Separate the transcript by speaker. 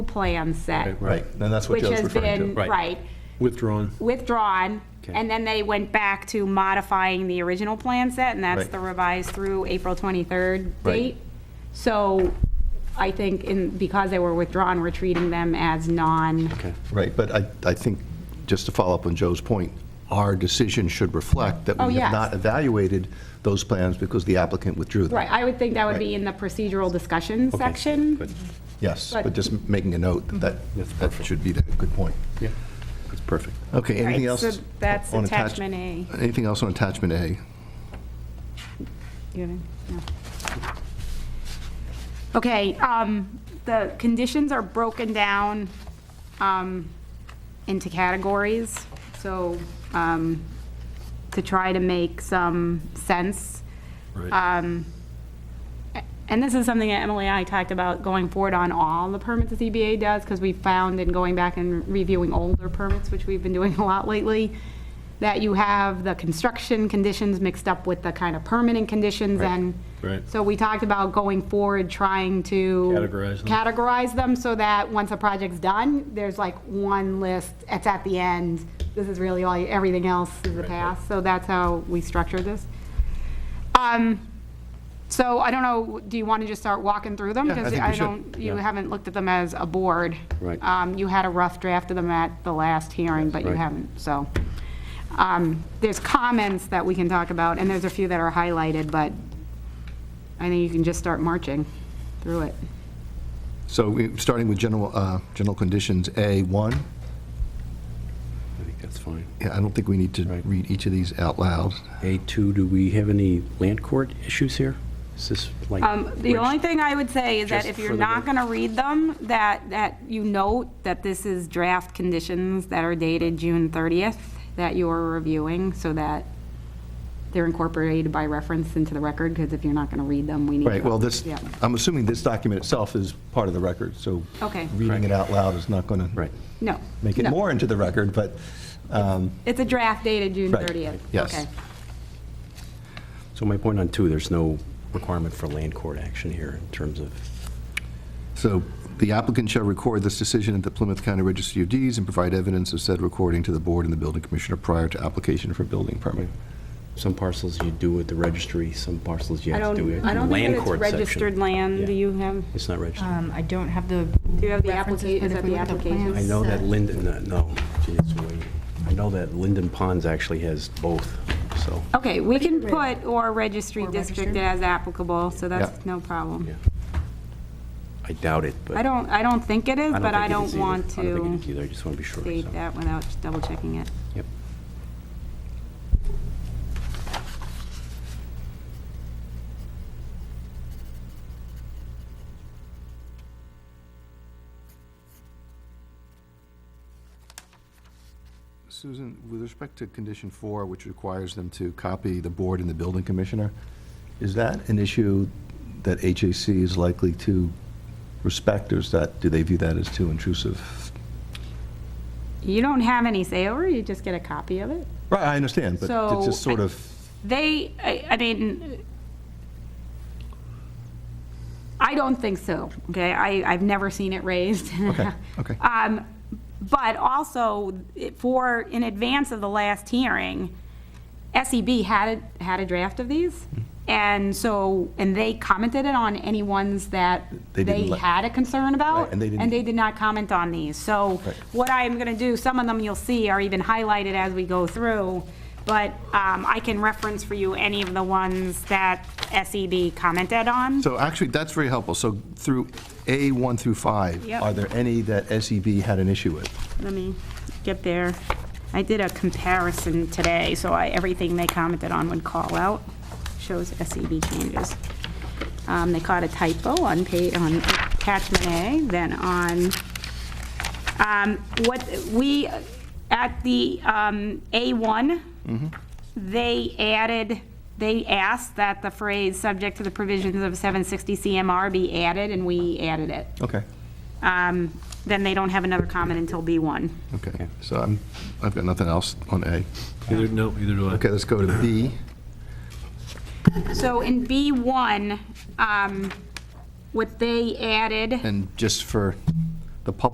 Speaker 1: plan set,
Speaker 2: Right, and that's what
Speaker 1: which
Speaker 2: Joe's
Speaker 1: has been,
Speaker 2: referring to.
Speaker 3: Right.
Speaker 1: right,
Speaker 3: Withdrawn.
Speaker 1: withdrawn, and then they went back to modifying the original plan set, and that's
Speaker 2: Right.
Speaker 1: the revised through April 23rd
Speaker 2: Right.
Speaker 1: date. So I think in, because they were withdrawn, we're treating them as non,
Speaker 3: Okay.
Speaker 2: Right, but I, I think, just to follow up on Joe's point, our decision should reflect that
Speaker 1: Oh,
Speaker 2: we
Speaker 1: yes.
Speaker 2: have not evaluated those plans because the applicant withdrew them.
Speaker 1: right, I would think that would be
Speaker 2: Right.
Speaker 1: in the procedural discussion
Speaker 3: Okay,
Speaker 1: section.
Speaker 3: good.
Speaker 2: Yes,
Speaker 1: But-
Speaker 2: but just making a note that that
Speaker 1: Mm-hmm.
Speaker 3: That's
Speaker 2: that
Speaker 3: perfect.
Speaker 2: should be the good point.
Speaker 3: Yeah, that's perfect.
Speaker 2: Okay, anything
Speaker 1: Right,
Speaker 2: else?
Speaker 1: so that's
Speaker 2: on attach-
Speaker 1: attachment A.
Speaker 2: Anything else on attachment A?
Speaker 1: You know, no. Okay, um, the conditions are broken down, um, into categories, so, um, to try to make some sense. Um, a- And this is something that Emily and I talked about going forward on all the permits the ZBA does, because we found in going back and reviewing older permits, which we've been doing a lot lately, that you have the construction conditions mixed up with the kind of permitting conditions and.
Speaker 3: Right.
Speaker 1: So we talked about going forward, trying to.
Speaker 3: Categorize them.
Speaker 1: Categorize them so that once a project's done, there's like one list, it's at the end, this is really all, everything else is the
Speaker 3: Right, right.
Speaker 1: past. So that's how we structured this. Um, So I don't know, do you want to just start walking through them?
Speaker 2: Yeah, I
Speaker 1: Because
Speaker 2: think we should,
Speaker 1: don't- You
Speaker 3: yeah.
Speaker 1: haven't looked at them as a board.
Speaker 3: Right.
Speaker 1: Um, You had a rough draft of them at the last hearing, but you
Speaker 3: Right.
Speaker 1: haven't, so. um, There's comments that we can talk about, and there's a few that are highlighted, but I think you can just start marching through it.
Speaker 2: So we- starting with general, uh, general conditions, A1,
Speaker 3: I think that's fine.
Speaker 2: Yeah, I don't think we need to
Speaker 3: Right.
Speaker 2: read each of these out loud.
Speaker 3: A2, do we have any land court issues here? Is this like?
Speaker 1: Um, The
Speaker 3: which-
Speaker 1: only thing I would say is that
Speaker 3: Just
Speaker 1: if
Speaker 3: for
Speaker 1: you're
Speaker 3: the
Speaker 1: not
Speaker 3: rec-
Speaker 1: going to read them, that, that you note that this is draft conditions that are dated June 30th that you are reviewing, so that they're incorporated by reference into the record, because if you're not going to read them, we need.
Speaker 2: Right,
Speaker 1: to-
Speaker 2: well, this,
Speaker 1: Yeah.
Speaker 2: I'm assuming this document itself is part of the record, so
Speaker 1: Okay.
Speaker 2: reading it out loud is not going to
Speaker 3: Right.
Speaker 1: No.
Speaker 2: make it
Speaker 1: no.
Speaker 2: more into the record, but, um,
Speaker 1: It's a draft dated June
Speaker 2: Right,
Speaker 1: 30th.
Speaker 2: yes.
Speaker 1: Okay.
Speaker 3: So my point on two, there's no requirement for land court action here in terms of,
Speaker 2: so the applicant shall record this decision at the Plymouth County Registry of Deeds and provide evidence of said recording to the board and the building commissioner prior to application for building permit.
Speaker 3: some parcels you do at the registry, some parcels you
Speaker 1: I
Speaker 3: have to do
Speaker 1: don't,
Speaker 3: it.
Speaker 1: I don't think
Speaker 3: Land
Speaker 1: that it's
Speaker 3: court section.
Speaker 1: registered land.
Speaker 3: Yeah.
Speaker 1: Do you have,
Speaker 3: It's not registered.
Speaker 4: Um, I don't have the.
Speaker 1: Do you have the
Speaker 4: references,
Speaker 1: applica-
Speaker 4: but
Speaker 1: is
Speaker 4: if
Speaker 1: it
Speaker 4: we
Speaker 1: the
Speaker 4: look at
Speaker 1: application?
Speaker 4: plan
Speaker 3: I know that
Speaker 4: set-
Speaker 3: Linden, no, no, gee, it's way, I know that Linden Ponds actually has both, so,
Speaker 1: okay, we can put or registry
Speaker 4: Or
Speaker 1: district as
Speaker 4: registered.
Speaker 1: applicable, so that's
Speaker 2: Yeah.
Speaker 1: no problem.
Speaker 3: yeah. I doubt it, but.
Speaker 1: I don't, I don't think it is, but I
Speaker 3: think it is
Speaker 1: don't
Speaker 3: either.
Speaker 1: want
Speaker 3: I don't think
Speaker 1: to
Speaker 3: it is either, I just want to be sure. so.
Speaker 1: state that without double checking it.
Speaker 3: Yep.
Speaker 2: Susan, with respect to condition four, which requires them to copy the board and the building commissioner, is that an issue that HAC is likely to respect, or is that, do they view that as too intrusive?
Speaker 1: You don't have any say over, it, you just get a copy of it?
Speaker 2: Right, I understand, but it's just
Speaker 1: So,
Speaker 2: sort
Speaker 1: I-
Speaker 2: of,
Speaker 1: They, I I mean, I don't think so, okay? I, I've never seen it raised.
Speaker 2: okay, okay.
Speaker 1: Um, But also, it- for, in advance of the last hearing, SEB had, a- had a draft of these,
Speaker 2: Mm-hmm.
Speaker 1: and so, and they commented it on any ones that
Speaker 2: They didn't
Speaker 1: they
Speaker 2: let-
Speaker 1: had a concern about,
Speaker 2: Right, and they didn't-
Speaker 1: and they did not comment on these. So
Speaker 2: Right.
Speaker 1: what I'm going to do, some of them you'll see are even highlighted as we go through, but um, I can reference for you any of the ones that SEB commented on.
Speaker 2: So actually, that's very helpful. So through A1 through 5,
Speaker 1: Yep.
Speaker 2: are there any that SEB had an issue with?
Speaker 1: Let me get there. I did a comparison today, so I, everything they commented on would call out, shows SEB changes. Um, they caught a typo on pay, on attachment A, then on, um, what, we, at the, um, A1, they added, they asked that the phrase "subject to the provisions of 760 CMR" be added, and we added it.
Speaker 2: Okay,
Speaker 1: Um, Then they don't have another comment until B1.
Speaker 2: okay. So I'm, I've got nothing else on A.
Speaker 5: Either, no, either do I.
Speaker 2: Okay, let's go to B.
Speaker 1: So in B1, um, what they added,
Speaker 2: And just for the public